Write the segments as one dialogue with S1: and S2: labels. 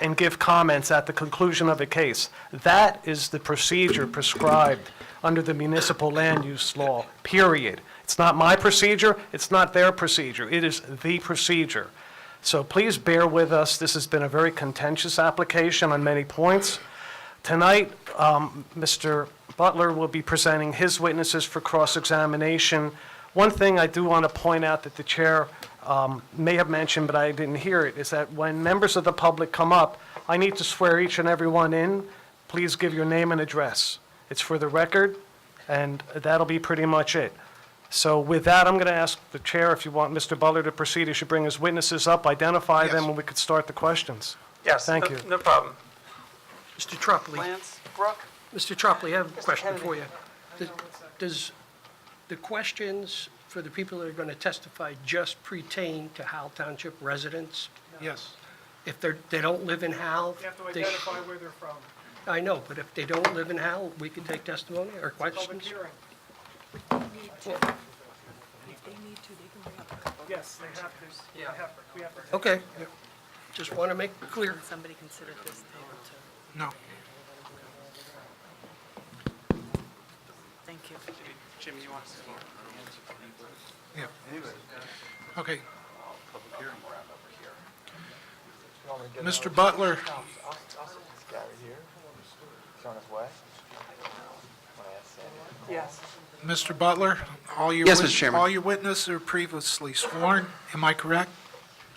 S1: and give comments at the conclusion of a case. That is the procedure prescribed under the municipal land use law, period. It's not my procedure, it's not their procedure, it is the procedure. So please bear with us, this has been a very contentious application on many points. Tonight, um, Mr. Butler will be presenting his witnesses for cross-examination. One thing I do want to point out that the chair um, may have mentioned, but I didn't hear it, is that when members of the public come up, I need to swear each and every one in. Please give your name and address. It's for the record, and that'll be pretty much it. So with that, I'm going to ask the chair, if you want Mr. Butler to proceed, he should bring his witnesses up, identify them, and we could start the questions.
S2: Yes.
S1: Thank
S2: no-
S1: you.
S2: No problem.
S3: Mr. Tropoli,
S2: Lance, Brooke?
S3: Mr. Tropoli, I have a question
S2: Kennedy.
S3: for you. Does- Does the questions for the people that are going to testify just pertain to Howell Township residents?
S4: Yes.
S3: If they're, they don't live in Howell?
S4: You have to
S3: they-
S4: identify where they're from.
S3: I know, but if they don't live in Howell, we can take testimony or
S4: Public
S3: questions?
S4: hearing,
S5: They need to, they can bring up a couple.
S4: yes, they have to, they have, we have to.
S3: Okay. Just want to make it clear.
S5: Somebody consider this table too.
S4: No.
S5: Thank you.
S2: Jim, you want to?
S4: Yeah. Okay. Mr. Butler,
S6: guy right here, he's on his way. Wanna ask Sandy?
S2: Yes.
S4: Mr. Butler, all your.
S7: Yes,
S4: wit-
S7: Mr. Chairman.
S4: All your witnesses are previously sworn, am I correct?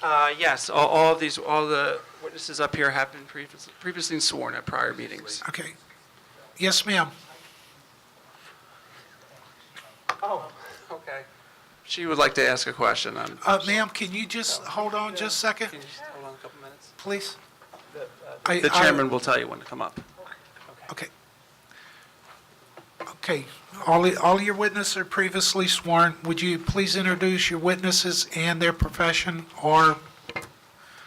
S7: Uh, Yes, all- all of these, all the witnesses up here have been previous- previously sworn at prior meetings.
S4: Okay. Yes, ma'am.
S2: Oh, okay.
S7: She would like to ask a question. um,
S4: Uh, ma'am, can you just, hold on just a second,
S7: Can you just hold on a couple minutes?
S4: please?
S7: The chairman will tell you when to come up.
S4: Okay. Okay, all, all your witnesses are previously sworn. Would you please introduce your witnesses and their profession or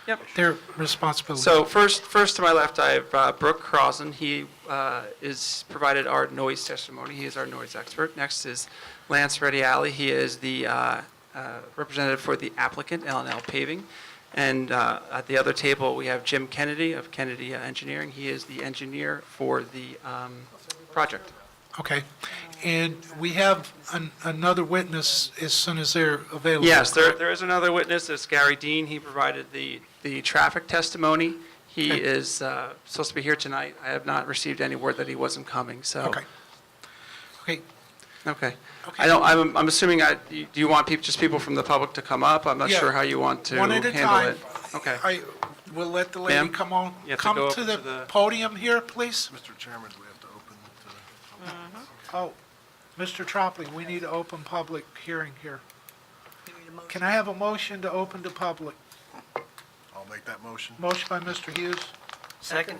S7: Yep.
S4: their responsibility?
S7: So first, first to my left, I have uh, Brooke Crossen. He uh, is provided our noise testimony. He is our noise expert. Next is Lance Ready He is the uh, uh, representative for the applicant, L and L Paving. And uh, at the other table, we have Jim Kennedy of Kennedy uh, Engineering. He is the engineer for the um, project.
S4: Okay, and we have an- another witness as soon as they're available.
S7: Yes, there, there is another witness, it's Gary Dean, he provided the, the traffic testimony. He is uh, supposed to be here tonight, I have not received any word that he wasn't coming, so.
S4: Okay. Okay,
S7: Okay.
S4: Okay.
S7: I don't, I'm, I'm assuming, I, you- do you want people, just people from the public to come up? I'm not
S4: Yeah.
S7: sure how you want to
S4: one at
S7: handle
S4: a
S7: it.
S4: time.
S7: Okay.
S4: I, we'll let the lady
S7: Ma'am,
S4: come on,
S7: you have to go
S4: come
S7: up
S4: to
S7: to
S4: the
S7: the-
S4: podium here, please.
S8: Mr. Chairman, we have to open the,
S5: Mm-hmm.
S4: Oh, Mr. Tropoli, we need to open public hearing here.
S5: We need a motion.
S4: Can I have a motion to open to public?
S8: I'll make that motion.
S4: Motion by Mr. Hughes,
S3: Second.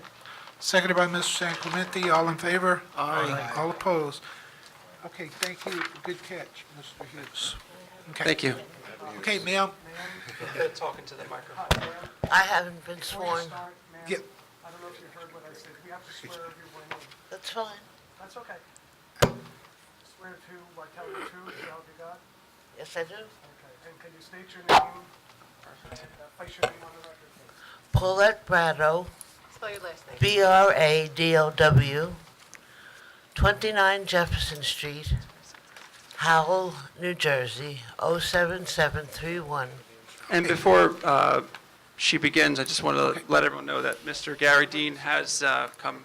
S4: seconded by Mr. San Clemente. All in favor? Aye. All opposed? Okay, thank you. Good catch, Mr. Hughes. Okay.
S7: Thank you.
S4: Okay, ma'am.
S7: Talking to the microphone.
S9: I haven't been sworn.
S4: Yeah,
S2: I don't know if you heard what I said. We have to swear everyone in.
S9: That's fine.
S2: That's okay. Swear to, I tell you the truth, and help you God.
S9: Yes, I do.
S2: Okay. And can you state your name? Uh, Place your name on the record, please.
S9: Paulette Brado,
S5: Spell your last name.
S9: B R A D O W, 29 Jefferson Street, Howell, New Jersey, 07731.
S7: And before uh, she begins, I just want to let everyone know that Mr. Gary Dean has uh, come.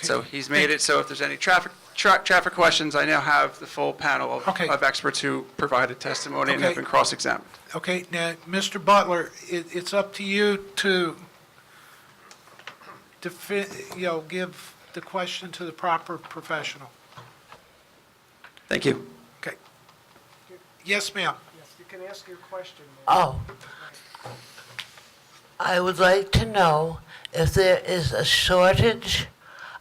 S7: So he's made it, so if there's any traffic, tra- traffic questions, I now have the full panel of-
S4: Okay.
S7: of experts who provided testimony and have
S4: Okay.
S7: been cross-examined.
S4: Okay, now, Mr. Butler, it, it's up to you to defi, you know, give the question to the proper professional.
S7: Thank you.
S4: Okay. Yes, ma'am.
S2: Yes, you can ask your question. ma'am.
S9: Oh. I would like to know if there is a shortage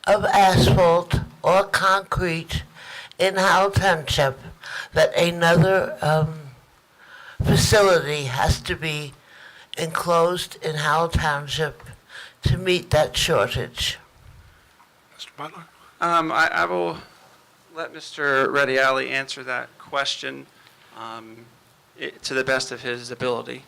S9: of asphalt or concrete in Howell Township that another um, facility has to be enclosed in Howell Township to meet that shortage.
S4: Mr. Butler?
S7: Um, I, I will let Mr. Ready answer that question um, i- to the best of his ability.